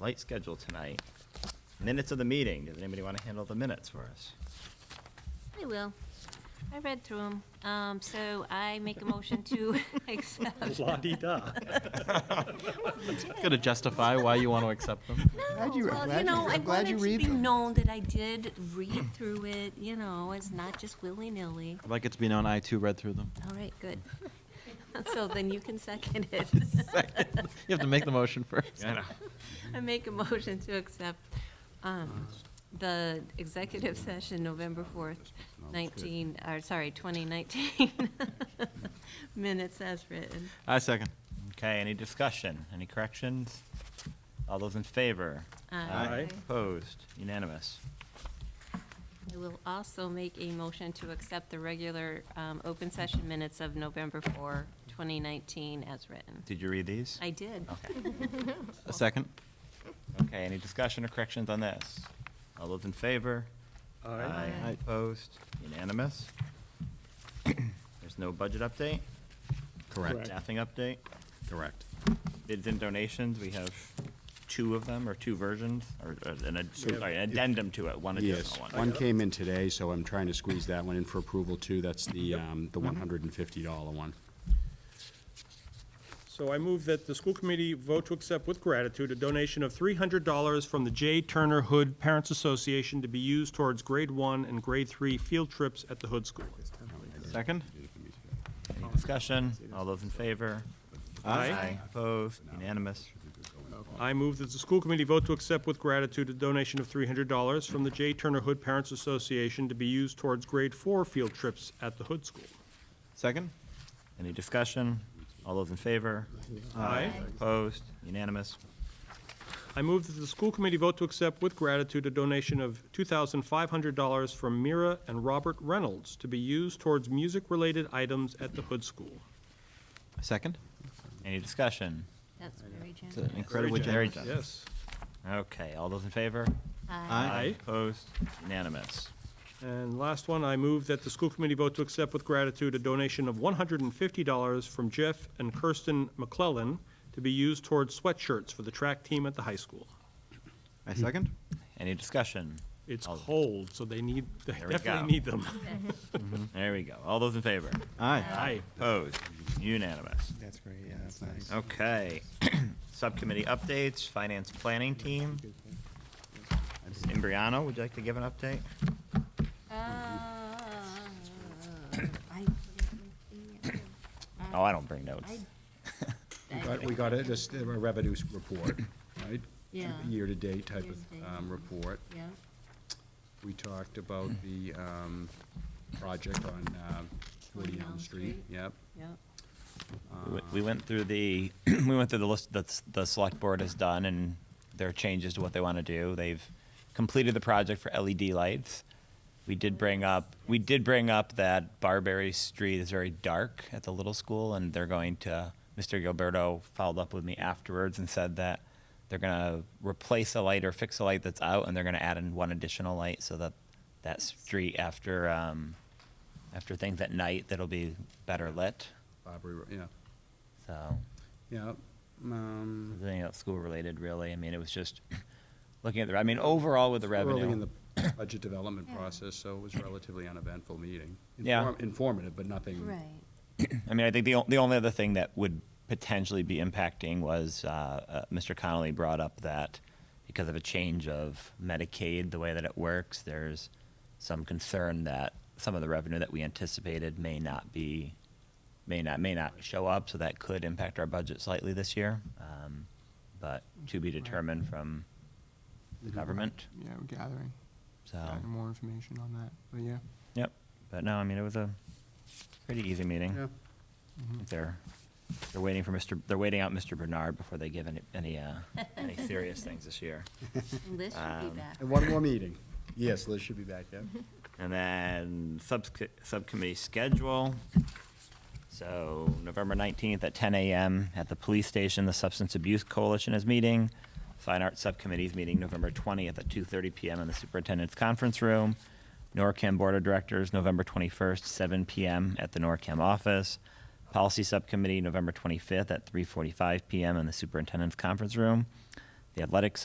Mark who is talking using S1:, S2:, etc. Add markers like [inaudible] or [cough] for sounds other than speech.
S1: light schedule tonight. Minutes of the meeting, does anybody want to handle the minutes for us?
S2: I will. I read through them. Um, so I make a motion to [laughs] accept.
S3: La-di-da.
S4: Gotta justify why you want to accept them.
S2: No,
S5: Glad you-
S2: well,
S5: glad
S2: you
S5: you-
S2: know, I
S5: I'm glad
S2: want it
S5: you
S2: to
S5: read
S2: be
S5: them.
S2: known that I did read through it, you know, it's not just willy-nilly.
S4: I'd like it to be known I too read through [laughs] them.
S2: All right, good. [laughs] So then you can second it.
S4: [laughs] Second. You have to make the motion first.
S1: Yeah,
S2: [laughs] I make a motion to accept um, the executive session November 4th, 19, or sorry, 2019 [laughs] minutes as written.
S4: I second.
S1: Okay, any discussion, any corrections? All those in favor?
S3: Aye.
S1: Opposed, unanimous.
S2: I will also make a motion to accept the regular um, open session minutes of November 4, 2019 as written.
S1: Did you read these?
S2: I did.
S4: A second.
S1: Okay, any discussion or corrections on this? All those in favor?
S3: Aye.
S2: Aye.
S1: Opposed, unanimous. [clears throat] There's no budget update?
S3: Correct.
S1: Staffing update?
S6: Correct.
S1: bids and donations, we have two of them, or two versions, or or an ad-
S3: We have-
S1: sorry, an addendum to it, one
S6: Yes,
S1: additional one.
S6: one came in today, so I'm trying to squeeze that one in for approval too. That's the, um, the one hundred and fifty dollar one.
S3: So I move that the school committee vote to accept with gratitude a donation of $300 from the J. Turner Hood Parents Association to be used towards grade one and grade three field trips at the Hood School.
S4: Second.
S1: Any discussion? All those in favor?
S3: Aye.
S1: Opposed? Unanimous?
S3: I move that the school committee vote to accept with gratitude a donation of $300 from the J. Turner Hood Parents Association to be used towards grade four field trips at the Hood School.
S4: Second.
S1: Any discussion? All those in favor?
S3: Aye.
S1: Opposed? Unanimous?
S3: I move that the school committee vote to accept with gratitude a donation of $2,500 from Mira and Robert Reynolds to be used towards music-related items at the Hood School.
S4: A second.
S1: Any discussion?
S2: That's very
S4: It's an
S2: generous.
S4: incredibly
S1: Very
S4: generous.
S1: generous.
S3: Yes.
S1: Okay, all those in favor?
S3: Aye.
S1: Opposed? Unanimous?
S3: And last one, I move that the school committee vote to accept with gratitude a donation of $150 from Jeff and Kirsten McClellan to be used towards sweatshirts for the track team at the high school.
S4: I second.
S1: Any discussion?
S3: It's
S1: All-
S3: cold, so they need, they
S1: There we go.
S3: definitely need them.
S1: There we go. All those in favor?
S4: Aye.
S3: Aye.
S1: Opposed? Unanimous?
S5: That's great, yeah, that's nice.
S1: Okay. [clears throat] Subcommittee updates, finance planning team. Ms. Imbriano, would you like to give an update?
S2: uh,
S1: Oh, I don't bring notes.
S6: [laughs] But we got a, this, a revenue report, right?
S2: Yeah.
S6: Year-to-date type of,
S2: Year-to-date.
S6: um, report.
S2: Yeah.
S6: We talked about the, um, project on, um, Woody Elm Street, yep.
S2: Yep.
S1: We- We went through the, [clears throat] we went through the list that s- the select board has done and their changes to what they want to do. They've completed the project for LED lights. We did bring up, we did bring up that Barberry Street is very dark at the little school and they're going to, Mr. Gilberto followed up with me afterwards and said that they're going to replace a light or fix a light that's out and they're going to add in one additional light so that that street after, um, after things at night, that'll be better lit.
S6: Barbary, Ro- yeah,
S1: So
S6: yeah, um.
S1: nothing else school related really. I mean, it was just [laughs] looking at the, I mean, overall with the
S6: Early in
S1: revenue.
S6: the budget development process, so it was relatively uneventful meeting.
S1: Yeah.
S6: Inform- Informative, but nothing.
S2: Right.
S1: I mean, I think the, o- the only other thing that would potentially be impacting was, uh, uh, Mr. Connolly brought up that because of a change of Medicaid, the way that it works, there's some concern that some of the revenue that we anticipated may not be, may not, may not show up. So that could impact our budget slightly this year. Um, but to be determined from the government.
S7: Yeah, we're gathering,
S1: So.
S7: gathering more information on that, but yeah.
S1: Yep. But no, I mean, it was a pretty easy meeting.
S6: Yeah.
S1: They're, they're waiting for Mr., they're waiting out Mr. Bernard before they give any, any, uh, any serious things this year.
S2: Liz should
S1: Um,
S2: be back.
S6: And one more meeting. Yes, Liz should be back, yeah.
S1: And then subs- subcommittee schedule. So November 19th at 10 a.m. at the police station, the Substance Abuse Coalition is meeting. Fine Arts Subcommittee is meeting November 20th at 2:30 p.m. in the Superintendent's Conference Room. NORCAM Board of Directors, November 21st, 7 p.m. at the NORCAM office. Policy Subcommittee, November 25th at 3:45 p.m. in the Superintendent's Conference Room. The Athletics